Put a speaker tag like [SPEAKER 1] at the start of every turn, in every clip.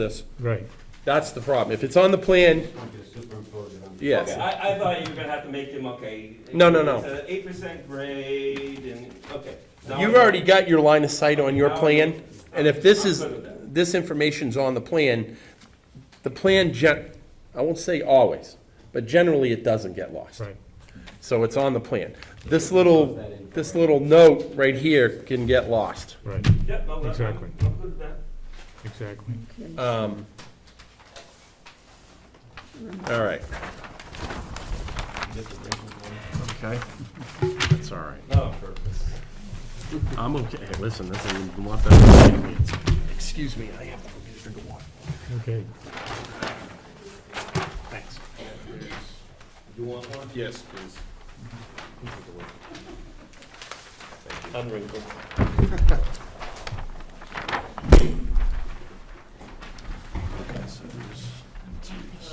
[SPEAKER 1] this.
[SPEAKER 2] Right.
[SPEAKER 1] That's the problem. If it's on the plan,
[SPEAKER 3] Okay,
[SPEAKER 1] yes.
[SPEAKER 3] I, I thought you were gonna have to make them, okay.
[SPEAKER 1] No, no, no.
[SPEAKER 3] It's an eight percent grade and, okay. Now
[SPEAKER 1] You've
[SPEAKER 3] I'm-
[SPEAKER 1] already got your line of sight on your
[SPEAKER 3] Now I'm-
[SPEAKER 1] plan, and if this
[SPEAKER 3] I'm
[SPEAKER 1] is,
[SPEAKER 3] good with that.
[SPEAKER 1] this information's on the plan, the plan gen, I won't say always, but generally it doesn't get lost.
[SPEAKER 2] Right.
[SPEAKER 1] So it's on the plan. This little, this little note right here can get lost.
[SPEAKER 2] Right,
[SPEAKER 3] Yep, no, I'm, I'm
[SPEAKER 2] Exactly.
[SPEAKER 3] I'm good with that.
[SPEAKER 2] exactly.
[SPEAKER 1] Um, All right. Okay. That's all right.
[SPEAKER 3] Not on purpose.
[SPEAKER 1] I'm okay. Hey, listen, this is a lot better than me. Excuse me, I have to go get a drink of water.
[SPEAKER 2] Okay.
[SPEAKER 1] Thanks.
[SPEAKER 4] You want one?
[SPEAKER 1] Yes, please. Unwrinkled.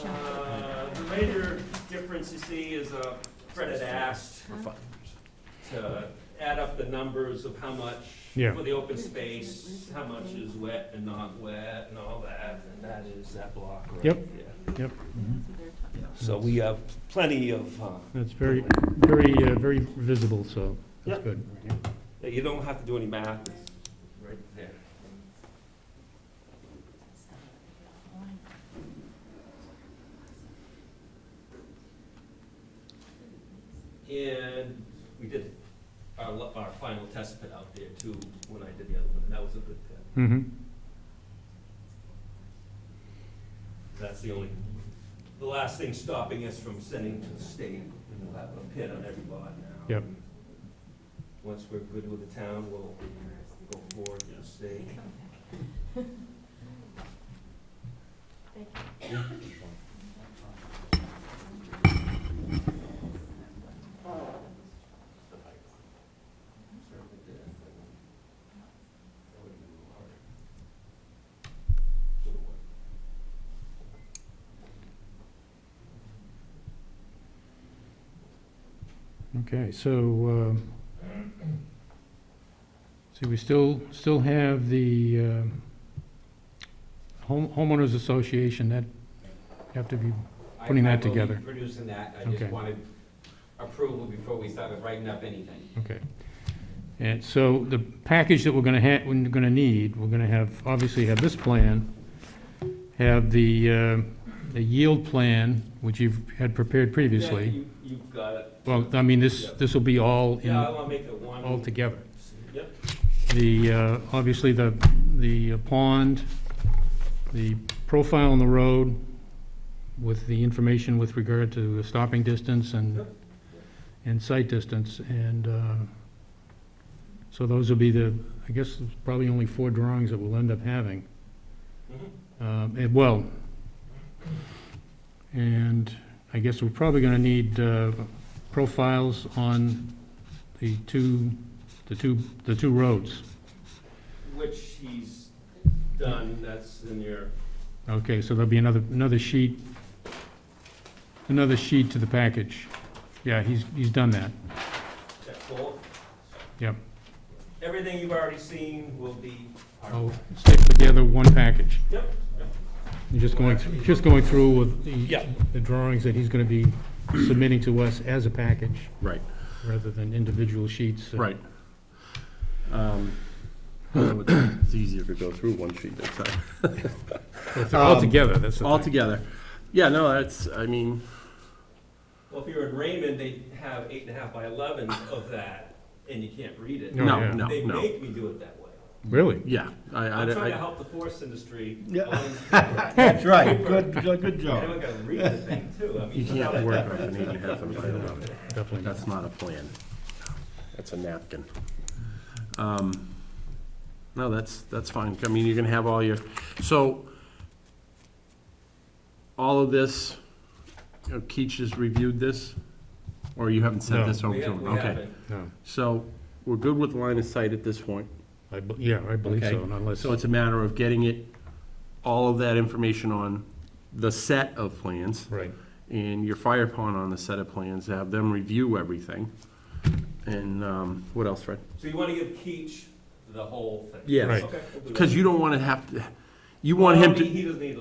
[SPEAKER 3] Uh, the major difference you see is, uh, Fred had asked to add up the numbers of how much
[SPEAKER 2] Yeah.
[SPEAKER 3] for the open space, how much is wet and not wet and all that, and that is that block right
[SPEAKER 2] Yep.
[SPEAKER 3] there.
[SPEAKER 2] Yep,
[SPEAKER 3] So we have plenty of, uh,
[SPEAKER 2] that's very, very, uh, very visible, so that's
[SPEAKER 3] Yeah.
[SPEAKER 2] good.
[SPEAKER 3] Yeah, You don't have to do any math, it's right there. And we did our, lo- our final test pit out there too, when I did the other one, and that was a good pit.
[SPEAKER 2] Mm-hmm.
[SPEAKER 3] That's the only, the last thing stopping us from sending to the state, and we'll have a pit on every lot now.
[SPEAKER 2] Yep.
[SPEAKER 3] Once we're good with the town, we'll go forward to the state.
[SPEAKER 2] Okay, so, um, see, we still, still have the um, home homeowners association, that have to be,
[SPEAKER 5] I-
[SPEAKER 2] putting
[SPEAKER 5] I
[SPEAKER 2] that
[SPEAKER 5] will be
[SPEAKER 2] together.
[SPEAKER 5] producing that, I just
[SPEAKER 2] Okay.
[SPEAKER 5] wanted approval before we started writing up anything.
[SPEAKER 2] okay. And so the package that we're gonna have, we're gonna need, we're gonna have, obviously have this plan, have the, uh, the yield plan, which you've had prepared
[SPEAKER 3] Yeah,
[SPEAKER 2] previously.
[SPEAKER 3] you- You've got it.
[SPEAKER 2] Well, I mean, this, this will be all in,
[SPEAKER 3] Yeah, I wanna make it one.
[SPEAKER 2] all together.
[SPEAKER 3] Yep,
[SPEAKER 2] The, uh, obviously, the, the pond, the profile on the road with the information with regard to the stopping distance and,
[SPEAKER 3] Yep.
[SPEAKER 2] and sight distance, and, uh, so those will be the, I guess, there's probably only four drawings that we'll end up having,
[SPEAKER 3] mhm.
[SPEAKER 2] Um, and- well. And I guess we're probably gonna need, uh, profiles on the two, the two, the two roads.
[SPEAKER 3] Which he's done, that's in your,
[SPEAKER 2] Okay, so there'll be another, another sheet, another sheet to the package. Yeah, he's, he's done that.
[SPEAKER 3] that full.
[SPEAKER 2] Yep.
[SPEAKER 3] Everything you've already seen will be. part of
[SPEAKER 2] I'll stick together one package.
[SPEAKER 3] it. Yep, yep.
[SPEAKER 2] I'm Just going, through- just going through with the,
[SPEAKER 1] Yeah.
[SPEAKER 2] the drawings that he's gonna be submitting to us as a package,
[SPEAKER 1] Right,
[SPEAKER 2] rather than individual sheets.
[SPEAKER 1] right. Um, so It's it's easier to go through one sheet at a time.
[SPEAKER 2] All together, that's the thing.
[SPEAKER 1] Altogether, yeah, no, that's, I mean,
[SPEAKER 3] Well, if you're in Raymond, they have eight and a half by eleven of that, and you can't read it.
[SPEAKER 2] No,
[SPEAKER 1] no,
[SPEAKER 2] Oh, yeah.
[SPEAKER 1] no,
[SPEAKER 3] They
[SPEAKER 1] no,
[SPEAKER 3] make me do it that way.
[SPEAKER 2] Really?
[SPEAKER 1] yeah. I,
[SPEAKER 3] I'm
[SPEAKER 1] I,
[SPEAKER 3] trying to
[SPEAKER 1] I-
[SPEAKER 3] help the forest industry.
[SPEAKER 4] Yeah.
[SPEAKER 3] And
[SPEAKER 4] That's right, good, good good job.
[SPEAKER 3] I gotta read the thing too, I mean.
[SPEAKER 1] you can't
[SPEAKER 3] without-
[SPEAKER 1] work off an eight and a half and by eleven.
[SPEAKER 2] Definitely not.
[SPEAKER 1] That's not a plan. That's a napkin. Um, No, that's, that's fine. I mean, you're gonna have all your, so all of this, you know, Keach has reviewed this? Or you haven't sent
[SPEAKER 2] No.
[SPEAKER 1] this over
[SPEAKER 3] We
[SPEAKER 1] to
[SPEAKER 3] have-
[SPEAKER 1] him?
[SPEAKER 3] we
[SPEAKER 1] Okay.
[SPEAKER 3] haven't.
[SPEAKER 2] No,
[SPEAKER 1] So we're good with line of sight at this point.
[SPEAKER 2] I, be- yeah, I believe
[SPEAKER 1] Okay.
[SPEAKER 2] so, unless,
[SPEAKER 1] So it's a matter of getting it, all of that information on the set of plans
[SPEAKER 2] right,
[SPEAKER 1] and your fire pond on the set of plans, to have them review everything. And, um, what else, Fred?
[SPEAKER 3] So you wanna give Keach the whole thing?
[SPEAKER 1] Yes.
[SPEAKER 2] Right.
[SPEAKER 3] Okay, we'll do that.
[SPEAKER 1] Because you don't wanna have to, you want him
[SPEAKER 3] Well,
[SPEAKER 1] to.
[SPEAKER 3] He he doesn't need